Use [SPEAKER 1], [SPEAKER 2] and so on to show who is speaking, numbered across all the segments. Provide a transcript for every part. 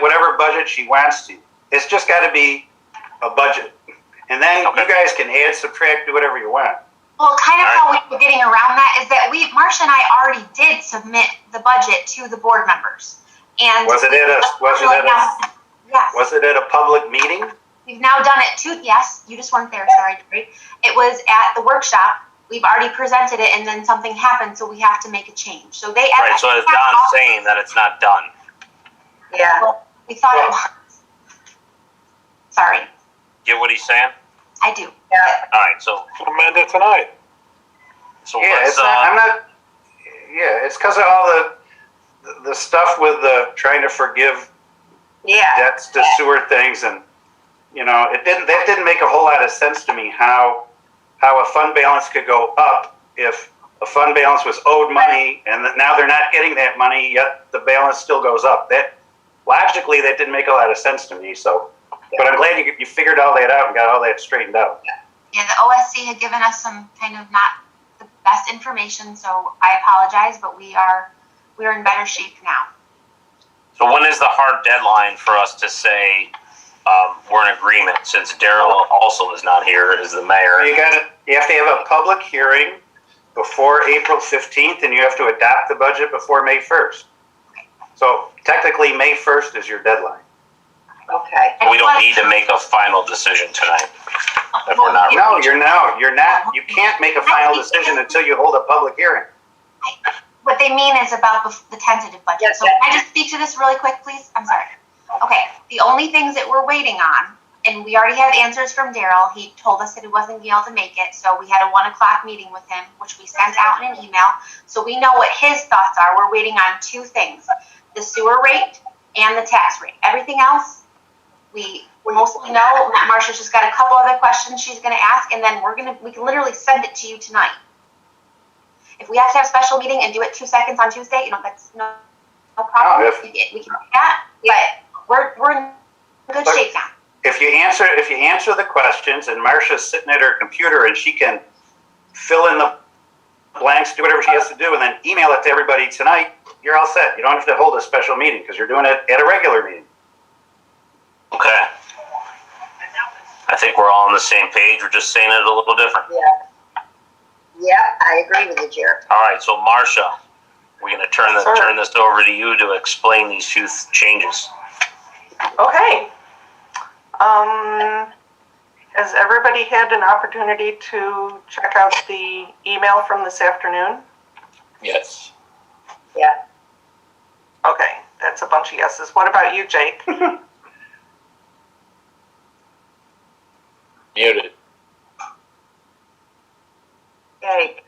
[SPEAKER 1] whatever budget she wants to. It's just got to be a budget. And then you guys can add, subtract, do whatever you want.
[SPEAKER 2] Well, kind of
[SPEAKER 3] All
[SPEAKER 2] how we were getting around that is that we, Marcia and I already did submit the budget to the board members. And.
[SPEAKER 1] Was it at a, was it at a,
[SPEAKER 2] Yes,
[SPEAKER 1] was it at a public meeting?
[SPEAKER 2] we've now done it two, yes, you just weren't there, sorry, Jerry. It was at the workshop, we've already presented it and then something happened, so we have to make a change. So they.
[SPEAKER 3] Right, so as Don's saying that it's not done.
[SPEAKER 4] Yeah,
[SPEAKER 2] We thought it was. Sorry,
[SPEAKER 3] Get what he's saying?
[SPEAKER 2] I do.
[SPEAKER 4] yeah,
[SPEAKER 3] All right, so,
[SPEAKER 5] amend it tonight.
[SPEAKER 3] so
[SPEAKER 1] Yeah,
[SPEAKER 3] let's,
[SPEAKER 1] it's not,
[SPEAKER 3] uh,
[SPEAKER 1] I'm not, yeah, it's because of all the, the stuff with the trying to forgive
[SPEAKER 4] yeah.
[SPEAKER 1] debts to sewer things and, you know, it didn't, that didn't make a whole lot of sense to me how, how a fund balance could go up if a fund balance was owed money and that now they're not getting that money, yet the balance still goes up. That, logically, that didn't make a lot of sense to me, so. But I'm glad you, you figured all that out and got all that straightened out.
[SPEAKER 2] Yeah, the OSC had given us some kind of not the best information, so I apologize, but we are, we are in better shape now.
[SPEAKER 3] so when is the hard deadline for us to say, um, we're in agreement, since Daryl also is not here as the
[SPEAKER 1] You
[SPEAKER 3] mayor?
[SPEAKER 1] gotta, you have to have a public hearing before April fifteenth and you have to adopt the budget before May first. So technically, May first is your deadline.
[SPEAKER 4] Okay,
[SPEAKER 3] We don't need to make a final decision tonight. if we're not
[SPEAKER 1] No, you're no, you're not, you can't make a final decision until you hold a public hearing.
[SPEAKER 2] What they mean is about the- the tentative budget.
[SPEAKER 4] Yes,
[SPEAKER 2] So
[SPEAKER 4] yes.
[SPEAKER 2] can I just speak to this really quick, please? I'm sorry. Okay, the only things that we're waiting on, and we already have answers from Daryl. He told us that he wasn't gonna be able to make it, so we had a one o'clock meeting with him, which we sent out in an email. So we know what his thoughts are. We're waiting on two things, the sewer rate and the tax rate. Everything else, we mostly know. Marcia's just got a couple other questions she's gonna ask, and then we're gonna, we can literally send it to you tonight. If we have to have a special meeting and do it two seconds on Tuesday, you know, that's no, no problem.
[SPEAKER 1] No, if-
[SPEAKER 2] We can we can do that, but we're, we're in good
[SPEAKER 1] But-
[SPEAKER 2] shape now.
[SPEAKER 1] If you answer, if you answer the questions and Marcia's sitting at her computer and she can fill in the blanks, do whatever she has to do, and then email it to everybody tonight, you're all set. You don't have to hold a special meeting because you're doing it at a regular meeting.
[SPEAKER 3] Okay. I think we're all on the same page, we're just saying it a little different.
[SPEAKER 4] yeah, I agree with you, Jer.
[SPEAKER 3] All right, so Marcia, we're gonna turn the,
[SPEAKER 4] Sure.
[SPEAKER 3] turn this over to you to explain these two th- changes.
[SPEAKER 6] Okay. Oh, Um, has everybody had an opportunity to check out the email from this afternoon?
[SPEAKER 3] Yes.
[SPEAKER 4] Yeah,
[SPEAKER 6] Okay, that's a bunch of yeses. What about you, Jake?
[SPEAKER 3] Muted.
[SPEAKER 4] Jake,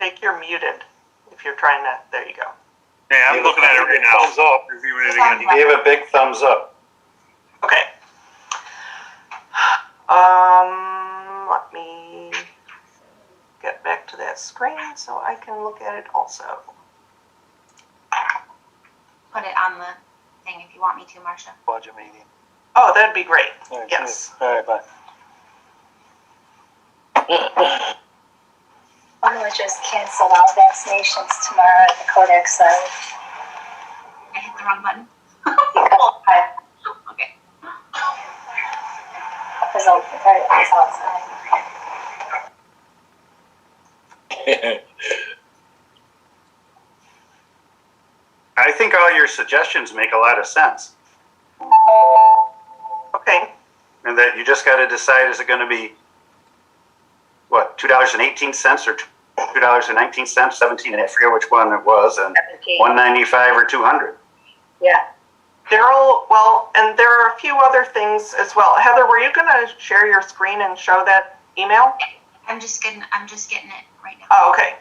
[SPEAKER 6] Jake, you're muted if you're trying to, there you go.
[SPEAKER 5] Yeah, I'm looking at it right now. Thumbs up, reviewing it again.
[SPEAKER 1] You gave a big thumbs up.
[SPEAKER 6] Okay. Um, let me get back to that screen so I can look at it also.
[SPEAKER 2] Put it on the thing if you want me to, Marcia.
[SPEAKER 5] Budget meeting.
[SPEAKER 6] Oh, that'd be great.
[SPEAKER 5] Alright,
[SPEAKER 6] Yes.
[SPEAKER 5] good. Alright, bye.
[SPEAKER 7] I'm gonna just cancel all vaccinations tomorrow at the Codex Live.
[SPEAKER 2] I hit the wrong button.
[SPEAKER 7] Because
[SPEAKER 2] Okay.
[SPEAKER 7] I'll, it's outside.
[SPEAKER 1] I think all your suggestions make a lot of sense,
[SPEAKER 6] Okay.
[SPEAKER 1] and that you just got to decide is it going to be what two dollars and eighteen cents or two dollars and nineteen cents, seventeen, and I forget which one it was, and
[SPEAKER 4] seventeen,
[SPEAKER 1] one ninety five or two hundred.
[SPEAKER 4] yeah.
[SPEAKER 6] Daryl, well, and there are a few other things as well. Heather, were you going to share your screen and show that email?
[SPEAKER 2] I'm just getting, I'm just getting it right now.
[SPEAKER 6] Oh, okay.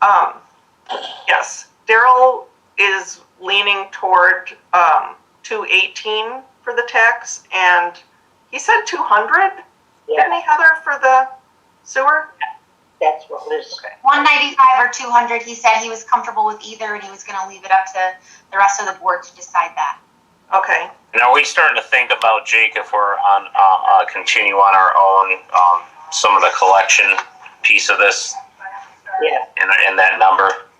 [SPEAKER 6] Um, yes, Daryl is leaning toward um, 218 for the tax, and he said 200, didn't
[SPEAKER 4] Yeah,
[SPEAKER 6] he, Heather, for the sewer?
[SPEAKER 4] that's what was,
[SPEAKER 2] One ninety-five or two hundred, he said he was comfortable with either and he was gonna leave it up to the rest of the board to decide that.
[SPEAKER 6] Okay.
[SPEAKER 3] And are we starting to think about Jake if we're on uh, uh, continue on our own um, some of the collection piece of this
[SPEAKER 4] yeah,
[SPEAKER 3] and in that number?